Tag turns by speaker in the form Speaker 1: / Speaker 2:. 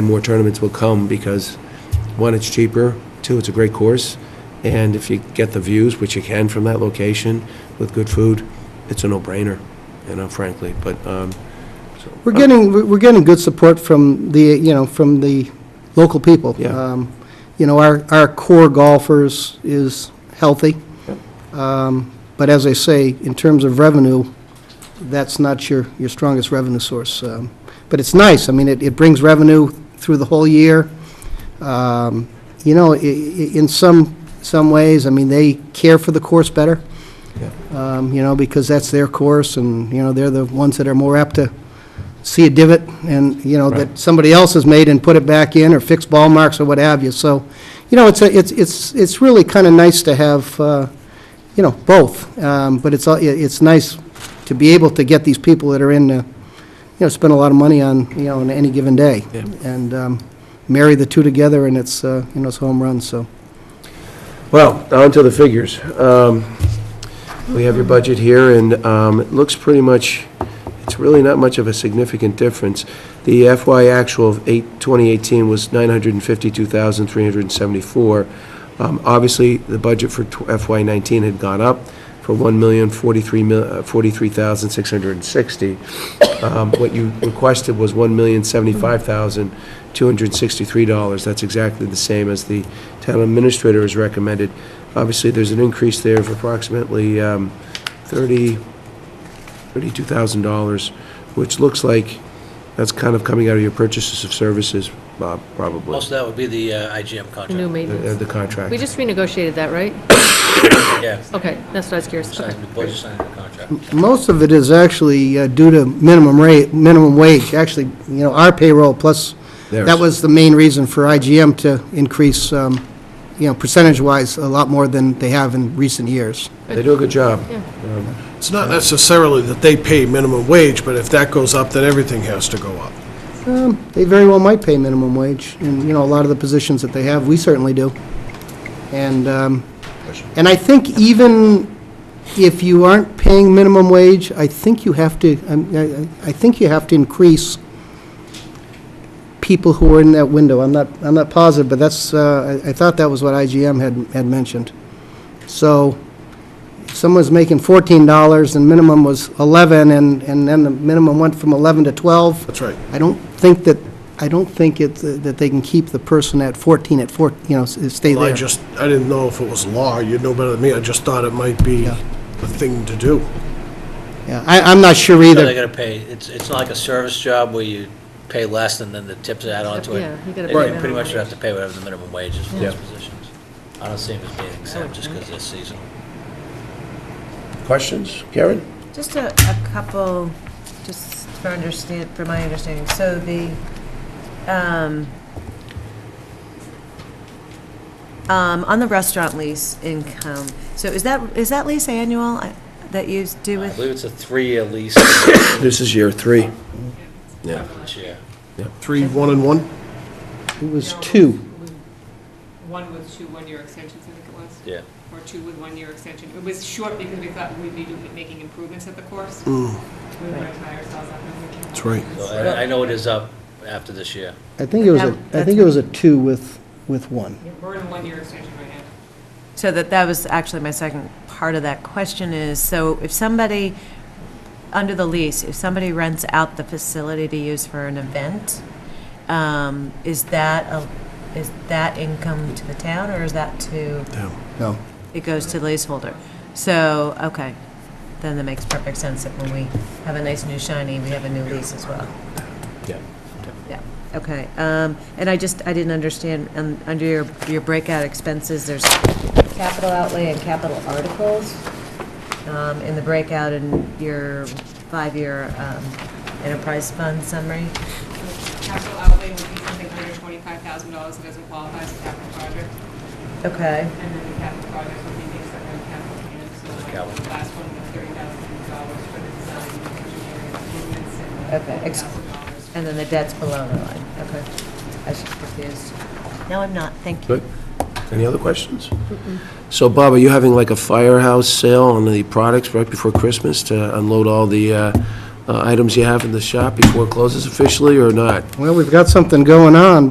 Speaker 1: and more tournaments will come because, one, it's cheaper, two, it's a great course, and if you get the views, which you can from that location, with good food, it's a no-brainer, you know, frankly, but, um, so.
Speaker 2: We're getting, we're we're getting good support from the, you know, from the local people.
Speaker 1: Yeah.
Speaker 2: Um, You know, our, our core golfers is healthy. Um, But as I say, in terms of revenue, that's not your, your strongest revenue source. Um, But it's nice, I mean, it, it brings revenue through the whole year. Um, You know, i- i- in some, some ways, I mean, they care for the course better.
Speaker 1: uh,
Speaker 2: Um, You know, because that's their course, and, you know, they're the ones that are more apt to see a divot and, you know,
Speaker 1: Right.
Speaker 2: that somebody else has made and put it back in or fix ball marks or what have you. So, you know, it's, a it's, it's it's really kind of nice to have, uh, you know, both. Um, But it's, all- it- it's nice to be able to get these people that are in, uh, you know, spend a lot of money on, you know, on any given day.
Speaker 1: Yeah.
Speaker 2: And um, marry the two together and it's, uh, you know, it's home run, so.
Speaker 1: Well, on to the figures. Um, We have your budget here, and um, it looks pretty much, it's really not much of a significant difference. The FY actual of eight- 2018 was 952,374. Um, Obviously, the budget for tw- FY '19 had gone up for uh, 1,043,660. Um, What you requested was $1,075,263. That's exactly the same as the town administrator has recommended. Obviously, there's an increase there of approximately um, 30, $32,000, which looks like that's kind of coming out of your purchases of services, Bob, probably,
Speaker 3: Most of that would be the uh, IGM contract.
Speaker 4: The new
Speaker 1: the
Speaker 4: maintenance.
Speaker 1: the contract.
Speaker 4: We just renegotiated that, right?
Speaker 3: Yeah.
Speaker 4: Okay, that's what I was curious about.
Speaker 3: Signed- the boys signed the contract.
Speaker 2: Most of it is actually uh, due to minimum rate, minimum wage, actually, you know, our payroll plus,
Speaker 1: Theirs.
Speaker 2: that was the main reason for IGM to increase, um, you know, percentage-wise, a lot more than they have in recent years.
Speaker 1: They do a good job.
Speaker 5: It's not necessarily that they pay minimum wage, but if that goes up, then everything has to go up.
Speaker 2: Um, They very well might pay minimum wage, and, you know, a lot of the positions that they have, we certainly do. And, um, and I think even if you aren't paying minimum wage, I think you have to, I'm- I I- I think you have to increase people who are in that window. I'm not, I'm not positive, but that's, uh, I I thought that was what IGM had, had mentioned. So if someone's making $14 and minimum was 11, and, and then the minimum went from 11 to 12.
Speaker 5: That's right.
Speaker 2: I don't think that, I don't think it, that they can keep the person at 14 at 14, you know, s- uh, stay
Speaker 5: Well, I
Speaker 2: there.
Speaker 5: just, I didn't know if it was law, you'd know better than me, I just thought it might be
Speaker 2: Yeah.
Speaker 5: the thing to do.
Speaker 2: Yeah, I, I'm not sure
Speaker 3: So they
Speaker 2: either.
Speaker 3: gotta pay, it's, it's not like a service job where you pay less and then the tips add on to it.
Speaker 4: Yeah, you gotta
Speaker 3: They
Speaker 4: pay
Speaker 3: pretty
Speaker 4: minimum
Speaker 3: much
Speaker 4: wage.
Speaker 3: have to pay whatever the minimum wage is for
Speaker 1: Yeah.
Speaker 3: those positions. I don't see them as being exempt just because they're seasonal.
Speaker 1: Questions? Karen?
Speaker 6: Just a, a couple, just for understand, for my understanding, so the, um, um, on the restaurant lease income, so is that, is that lease annual I- that you do
Speaker 3: I
Speaker 6: with?
Speaker 3: believe it's a three-year lease
Speaker 1: This is year three. Yeah.
Speaker 3: this year.
Speaker 5: Three, one and one?
Speaker 2: It was two.
Speaker 7: One with two one-year extensions, I think it was.
Speaker 3: Yeah.
Speaker 7: Or two with one-year extension. It was short because we thought we'd be doing- making improvements at the course. We
Speaker 5: Mm,
Speaker 7: were gonna tie ourselves up. and we came
Speaker 5: That's
Speaker 7: up
Speaker 5: right.
Speaker 7: with
Speaker 3: So
Speaker 7: this.
Speaker 3: I, I know it is up after this year.
Speaker 2: I think it was,
Speaker 6: That-
Speaker 2: a. I
Speaker 6: that's-
Speaker 2: think it was a two with, with one.
Speaker 7: We're in a one-year extension right now.
Speaker 6: So that, that was actually my second part of that question is, so if somebody, under the lease, if somebody rents out the facility to use for an event, um, is that, a- is that income to the town or is that to?
Speaker 2: No.
Speaker 6: It goes to the leaseholder. So, okay, then that makes perfect sense that when we have a nice new shiny, we have a new lease as well.
Speaker 1: Yeah.
Speaker 6: Yeah, okay. Um, And I just, I didn't understand, um, under your, your breakout expenses, there's capital outlay and capital articles um, in the breakout in your five-year um, enterprise fund summary.
Speaker 7: Capital outlay would be something under twenty-five thousand dollars that doesn't qualify as a capital project.
Speaker 6: Okay.
Speaker 7: And then the capital project would be the second capital unit. So like
Speaker 3: Capital.
Speaker 7: the last one was thirty thousand dollars for the design and engineering improvements and
Speaker 6: Okay,
Speaker 7: forty
Speaker 6: ex-
Speaker 7: thousand dollars.
Speaker 6: And then the debt's below the line. Okay. I was just confused. No, I'm not. Thank you.
Speaker 1: Good. Any other questions? So Bob, are you having like a firehouse sale on the products right before Christmas to unload all the uh,
Speaker 8: uh, items you have in the shop before it closes officially or not?
Speaker 2: Well, we've got something going on,